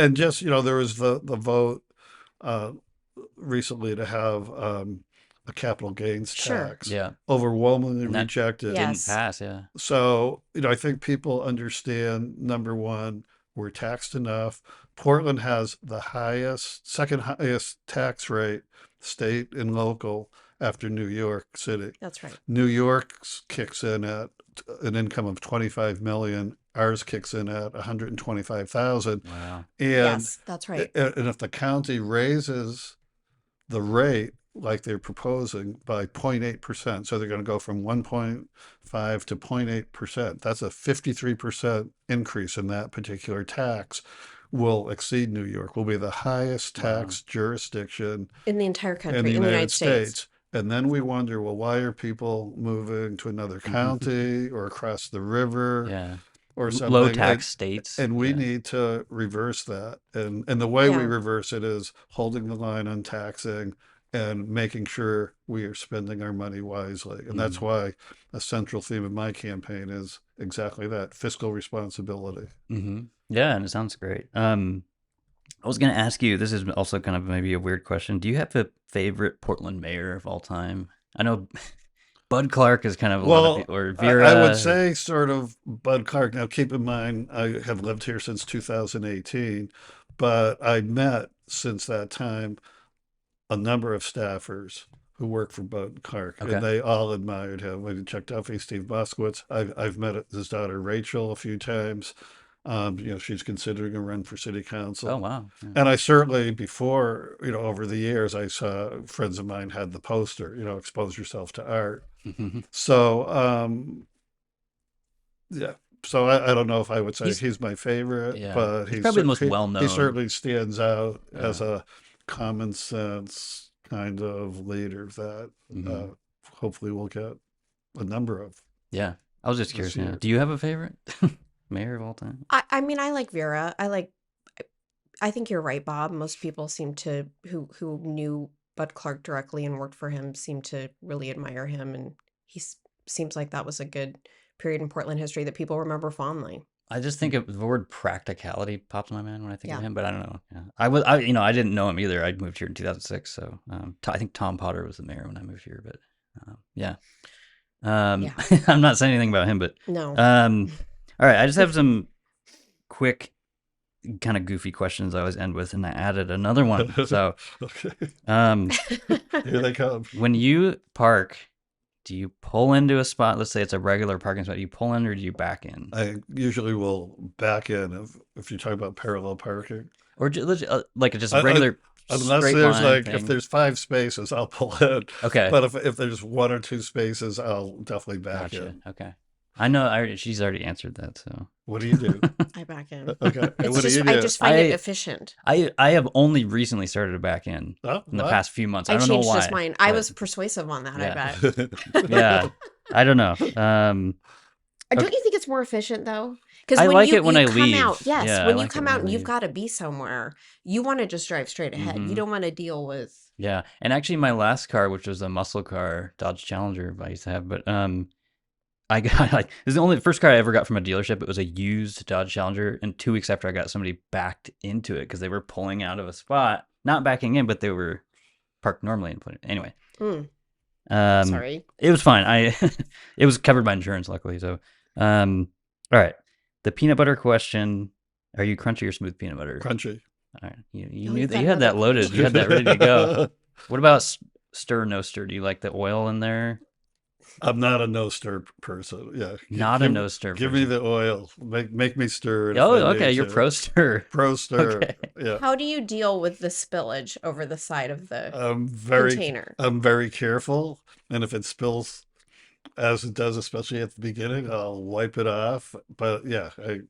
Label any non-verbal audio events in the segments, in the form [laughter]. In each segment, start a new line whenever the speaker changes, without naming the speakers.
and just, you know, there was the, the vote, uh, recently to have, um, a capital gains
Sure.
tax
Yeah.
overwhelmingly
And that-
rejected.
Yeah.
Didn't
Yes.
pass. Yeah.
So, you know, I think people understand number one, we're taxed enough. Portland has the highest, second highest tax rate, state and local, after New York City.
That's right.
New York's kicks in at an income of 25 million, ours kicks in at 125,000.
Wow.
And
Yes, that's right.
a- And if the county raises the rate like they're proposing by 0.8%, so they're going to go from 1.5 to 0.8%, that's a 53% increase in that particular tax, will exceed New York, will be the highest
Wow.
tax jurisdiction
In the entire
in
country,
the United States. And then we wonder, well, why are people moving to another county or across the river
Yeah.
or something?
Low
And-
tax states.
and we
yeah.
need to reverse that. And and the way we
Yeah.
reverse it is holding the line on taxing and making sure we are spending our money wisely. And that's
Mm.
why a central theme of my campaign is exactly that fiscal responsibility.
hmm Yeah, and it sounds great. Um, I was going to ask you. This is also kind of maybe a weird question. Do you have a favorite Portland mayor of all time? I know [laughs] Bud Clark is kind of a lot
Well,
of people, or
I-
Vera.
I
or-
would say sort of Bud Clark. Now keep in mind I have lived here since 2018, but I met since that time a number of staffers who work for Bud Clark,
Okay.
and they all admired him. Like Chuck Duffy, Steve Boskowitz. I've I've met his daughter Rachel a few times. Um, you know, she's considering a run for city council.
Oh wow.
[laughs]
Yeah.
And I certainly, before, you know, over the years, I saw friends of mine had the poster, you know, expose yourself to art. So, um, yeah. So I, I don't know if I would say
He's-
he's, my favorite,
Yeah.
but
He's probably the most
cer- he-
well-known.
He certainly stands out
Yeah.
as a common sense kind of leader that uh,
Mhm.
hopefully we'll get a number of. [laughs]
yeah. I was just
Let's
curious.
see
Now.
here.
Do you have a favorite [laughs] mayor of all time?
I, I mean, I like Vera. I like. I think you're right, Bob. Most people seem to who who knew Bud Clark directly and worked for him seem to really admire him, and he s- seems like that was a good period in Portland history that people remember fondly.
I just think of the word practicality pops in my mind when I think of
Yeah.
him, but I don't know. Yeah. I was, I you know, I didn't know him either. I moved here in 2006, so um, t- I think Tom Potter was the mayor when I moved here. But um, yeah, um,
Yeah.
[laughs] I'm not saying anything about him, but
No,
[laughs] um, all right, I just have some quick, kind of goofy questions I always end with, and I added another one. So
Okay.
um,
Here
[laughs]
they come.
when you park, do you pull into a spot? Let's say it's a regular parking spot. Do you pull in or do you back in?
I usually will back in if, if you talk about parallel parking.
or ju- leg- uh, like just
Un- un-
regular
Unless
straight
there's
line
like
thing.
if there's five spaces, I'll pull in.
okay
But if if there's one or two spaces, I'll definitely back
gotcha
in.
okay i know I, already- she's already answered that so
What do you do?
I back in.
[laughs] Okay. and
It's
Uh, what
just,
do you do?
I just find it
I-
efficient.
i i have only recently started to back in
Oh,
in the [laughs]
what?
past few months i,
I,
don't know
changed
why
this mind. I
but-
was persuasive on that.
Yeah.
I bet.
[laughs] yeah i
[laughs]
don't know um
Uh, Don't you think it's more efficient though?
I
Because
like it when I
come out,
leave.
yes,
Yeah, I
when you
like it
come
when I
out and you've
leave.
got to be somewhere, you want to just drive straight ahead.
Mhm.
You don't want to deal with.
yeah and actually my last car which was a muscle car dodge challenger i used to have but um I got [laughs] like this is the only first car I ever got from a dealership. It was a used Dodge Challenger, and two weeks after I got, it, somebody backed into it because they were pulling out of a spot, not backing in, but they were parked normally. And put anyway.
Mm,
Um,
sorry,
It was fine. I [laughs] it was covered by insurance, luckily. So, um, all right. The peanut butter question: Are you crunchy or smooth peanut butter? [laughs]
Crunchy.
All right. You, you
Oh,
knew
you've
that
got
you had
another
that loaded. You had that ready to go. What about s- stir no stir? Do you like the oil in there?
[laughs] I'm not a no stir person. Yeah. G-
Not a
give-
no stir.
Give me the oil. Make make me stir. it if
Oh,
I
okay.
need
You're
to.
pro
[laughs]
stir.
pro stir.
Okay.
Yeah.
how do you deal with the spillage over the side of the
I'm Uh, very
container?
I'm very careful, and if it spills, as it does, especially at the beginning, I'll wipe it off. But yeah, I,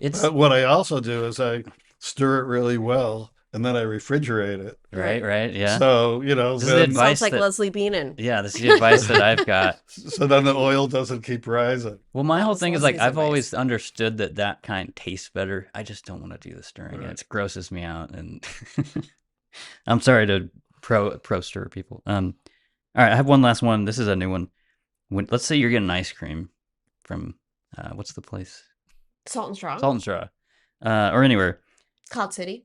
It's
[laughs] but what I also do is I stir it really well, and then I refrigerate it.
right, right. Yeah.
So you know,
This is
then,
advice
Sounds like
that-
Leslie Beenan.
yeah, this is the advice that
[laughs]
I've got.
so then the oil doesn't keep rising.
Well, my
That
whole
was
thing is like
Leslie's
I've
advice.
always understood that that kind tastes better. I just don't want to do the stirring.
Right.
It grosses me out, and [laughs] I'm sorry to pro pro stir people. Um, all right, I have one last one. This is a new one. When, let's say you're getting ice cream from uh, what's the place?
Salt and straw.
Salt and Straw, uh, or anywhere.
called City.